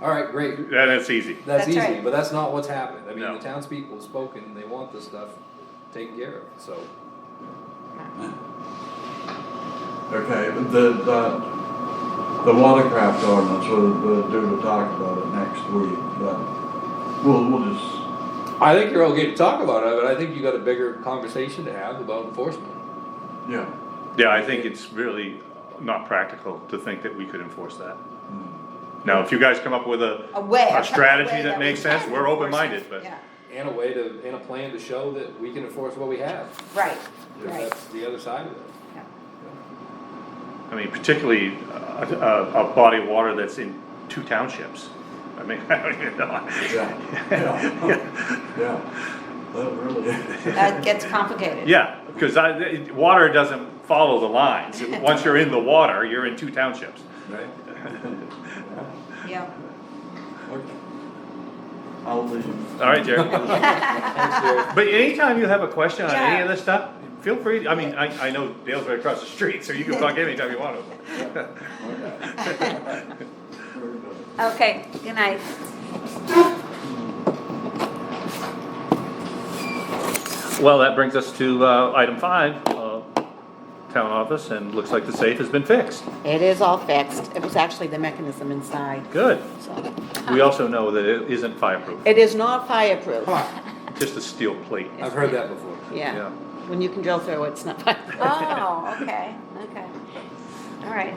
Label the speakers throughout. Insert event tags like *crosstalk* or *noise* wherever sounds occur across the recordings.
Speaker 1: alright, great,
Speaker 2: Then it's easy.
Speaker 1: that's
Speaker 3: That's
Speaker 1: easy,
Speaker 3: right.
Speaker 1: but that's not what's happened, I mean,
Speaker 2: No.
Speaker 1: the townspeople have spoken, they want this stuff taken care of, so.
Speaker 4: Okay, but the, the, the watercraft ordinance, we'll, we'll do to talk about it next week, but we'll, we'll just,
Speaker 1: I think you're okay to talk about it, but I think you got a bigger conversation to have about enforcement.
Speaker 4: yeah.
Speaker 2: Yeah, I think it's really not practical to think that we could enforce that.
Speaker 4: mm.
Speaker 2: Now, if you guys come up with a,
Speaker 3: A way.
Speaker 2: a
Speaker 3: a
Speaker 2: strategy
Speaker 3: way
Speaker 2: that
Speaker 3: we
Speaker 2: makes sense,
Speaker 3: can
Speaker 2: we're
Speaker 3: enforce
Speaker 2: open-minded,
Speaker 3: it.
Speaker 2: but-
Speaker 3: Yeah,
Speaker 1: And a way to, and a plan to show that we can enforce what we have,
Speaker 3: right,
Speaker 1: if
Speaker 3: right.
Speaker 1: that's the other side
Speaker 3: *laughs*
Speaker 1: of it.
Speaker 3: yeah.
Speaker 2: I mean, particularly uh, a, a body of water that's in two townships. I mean, *laughs* I don't even know.
Speaker 4: Yeah, yeah. Yeah, that really.
Speaker 3: That gets complicated.
Speaker 2: *laughs* Yeah, because I, it- water doesn't follow the lines. Once you're in the water, you're in two townships. *laughs*
Speaker 4: Right.
Speaker 3: Yeah.
Speaker 4: Okay. I'll leave.
Speaker 2: All right, Jerry.
Speaker 1: Thanks, Jerry.
Speaker 3: *laughs*
Speaker 2: But anytime you have a question on any of
Speaker 3: Yeah.
Speaker 2: this stuff, feel free, I mean, I, I know Dale's right across the street, so you can talk anytime you want to.
Speaker 4: Very good.
Speaker 3: Okay, good night.
Speaker 2: *laughs* Well, that brings us to, uh, item five, uh, town office, and looks like the safe has been fixed.
Speaker 5: It is all fixed. It was actually the mechanism inside,
Speaker 2: Good.
Speaker 5: so.
Speaker 2: We also know that it isn't fireproof,
Speaker 5: It is not fireproof.
Speaker 1: Come on,
Speaker 2: just a steel plate.
Speaker 1: I've heard that before.
Speaker 2: Yeah.
Speaker 5: Yeah. When you can drill through it, it's
Speaker 2: *laughs*
Speaker 5: not fireproof.
Speaker 3: Oh, okay, okay. All right.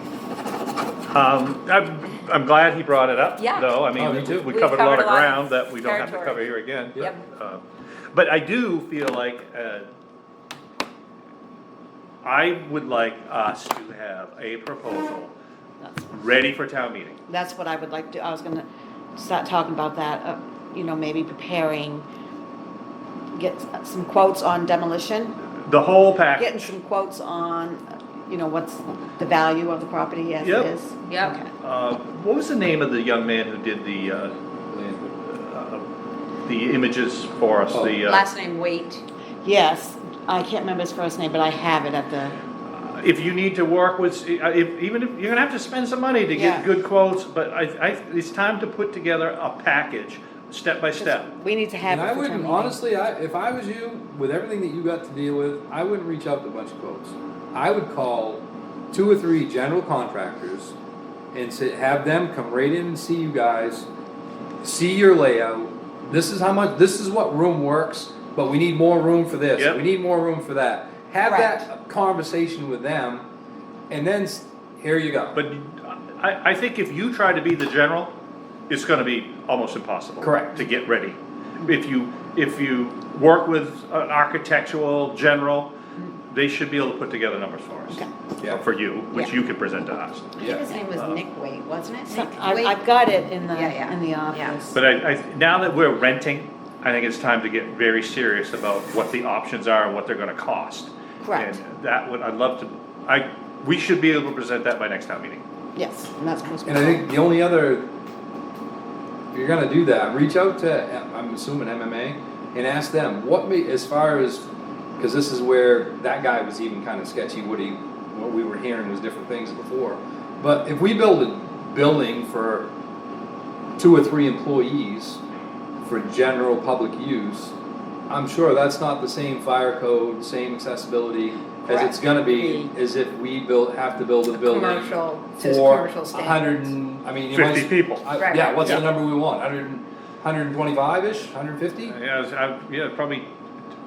Speaker 2: Um, I'm, I'm glad he brought it up,
Speaker 3: Yeah.
Speaker 2: though, I
Speaker 1: Oh, me
Speaker 2: mean,
Speaker 1: too.
Speaker 2: we
Speaker 3: We've
Speaker 2: covered a lot
Speaker 3: covered
Speaker 2: of
Speaker 3: a lot
Speaker 2: ground
Speaker 3: of
Speaker 2: that we don't have to
Speaker 3: territory.
Speaker 2: cover here again. but,
Speaker 3: Yep.
Speaker 2: uh, But I do feel like, uh, I would like us to have a proposal
Speaker 5: That's-
Speaker 2: ready for town meeting.
Speaker 5: That's what I would like to, I was gonna start talking about that, uh, you know, maybe preparing, get some quotes on demolition,
Speaker 2: The whole
Speaker 5: getting
Speaker 2: package,
Speaker 5: some quotes on, uh, you know, what's the value of the property as
Speaker 2: Yep.
Speaker 5: it is.
Speaker 3: Yep.
Speaker 5: Okay.
Speaker 2: uh, what was the name of the young man who did the, uh, uh, the images for us, the, uh,
Speaker 3: Last name Wait.
Speaker 5: Yes, I can't remember his first name, but I have it at the,
Speaker 2: if you need to work with, uh, if, even if, you're gonna have to spend some money to get
Speaker 5: Yeah.
Speaker 2: good quotes, but I, I, it's time to put together a package, step by step.
Speaker 5: we need to have
Speaker 1: And
Speaker 5: it
Speaker 1: I
Speaker 5: for town
Speaker 1: wouldn't,
Speaker 5: meeting.
Speaker 1: honestly, I, if I was you, with everything that you got to deal with, I wouldn't reach out to a bunch of quotes. I would call two or three general contractors and sit, have them come right in and see you guys, see your layout. This is how much, this is what room works, but we need more room for this,
Speaker 2: Yep.
Speaker 1: we need more room for that. Have that conversation with them, and then, s- here you go.
Speaker 2: But I, I think if you try to be the general, it's gonna be almost impossible.
Speaker 1: Correct.
Speaker 2: To get ready. If you, if you work with an architectural general, they should be able to put together numbers for us.
Speaker 5: Okay.
Speaker 1: Yeah.
Speaker 2: Or For you, which
Speaker 5: Yeah.
Speaker 2: you could present to us.
Speaker 3: I think his name was
Speaker 2: Uh-huh.
Speaker 3: Nick Wait, wasn't it?
Speaker 5: So-
Speaker 3: Nick
Speaker 5: I-
Speaker 3: Wait?
Speaker 5: I've got it in
Speaker 3: Yeah, yeah.
Speaker 5: the, in the
Speaker 3: Yeah.
Speaker 5: office.
Speaker 2: But I, I, now that we're renting, I think it's time to get very serious about what the options are and what they're gonna cost.
Speaker 5: Correct.
Speaker 2: And that would, I'd love to, I, we should be able to present that by next town meeting.
Speaker 5: Yes, and that's most.
Speaker 1: And I think the only other, if you're gonna do that, reach out to, I'm assuming MMA, and ask them, what me, as far as, cause this is where that guy was even kinda sketchy, what he, what we were hearing was different things before. But if we build a building for two or three employees for general public use, I'm sure that's not the same fire code, same accessibility as it's
Speaker 5: Correct.
Speaker 1: gonna be, as if we build, have to build a building
Speaker 3: Commercial, says
Speaker 1: for
Speaker 3: commercial
Speaker 1: a
Speaker 3: standards.
Speaker 1: hundred and, I mean. you
Speaker 2: Fifty
Speaker 1: might-
Speaker 2: people.
Speaker 1: I-
Speaker 3: Right.
Speaker 1: Yeah, what's the
Speaker 2: Yeah.
Speaker 1: number we want, hundred and, hundred and twenty-five-ish, hundred and fifty?
Speaker 2: Yeah, it's- I, yeah, probably,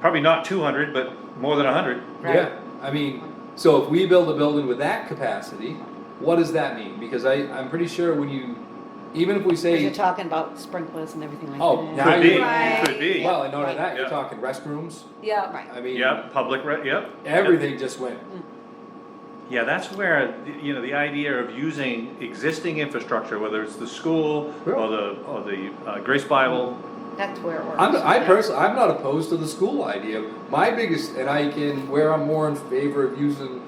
Speaker 2: probably not two hundred, but more than a hundred.
Speaker 3: Right.
Speaker 1: Yeah, I mean, so if we build a building with that capacity, what does that mean? Because I, I'm pretty sure when you, even if we
Speaker 5: Because you're
Speaker 1: say,
Speaker 5: talking about sprinklers and everything like that.
Speaker 1: Oh, now
Speaker 2: Could be,
Speaker 3: Right.
Speaker 2: could be.
Speaker 1: well, in order to that, you're
Speaker 2: Yeah.
Speaker 1: talking restrooms,
Speaker 3: Yeah.
Speaker 5: Right.
Speaker 1: I mean,
Speaker 2: Yeah, public, re- yep.
Speaker 1: everything just went,
Speaker 2: Yeah, that's where, you know, the idea of using existing infrastructure, whether it's the school
Speaker 1: Yeah.
Speaker 2: or the, or the uh, Grace Bible.
Speaker 3: That's where it works.
Speaker 1: I'm, I personally, I'm not opposed to the school idea. My biggest, and I can, where I'm more in favor of using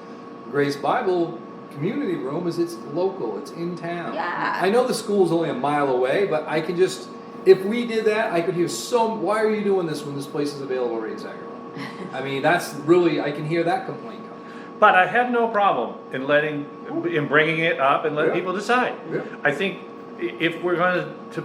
Speaker 1: Grace Bible Community Room is it's local, it's in town.
Speaker 3: Yeah.
Speaker 1: I know the school's only a mile away, but I can just, if we did that, I could hear so, why are you doing this when this place is available right in Sangerville? I mean, that's really, I can hear that complaint coming.
Speaker 2: But I have no problem in letting, in bringing it up and let
Speaker 1: Yeah.
Speaker 2: people decide.
Speaker 1: Yeah.
Speaker 2: I think i- if we're gonna, to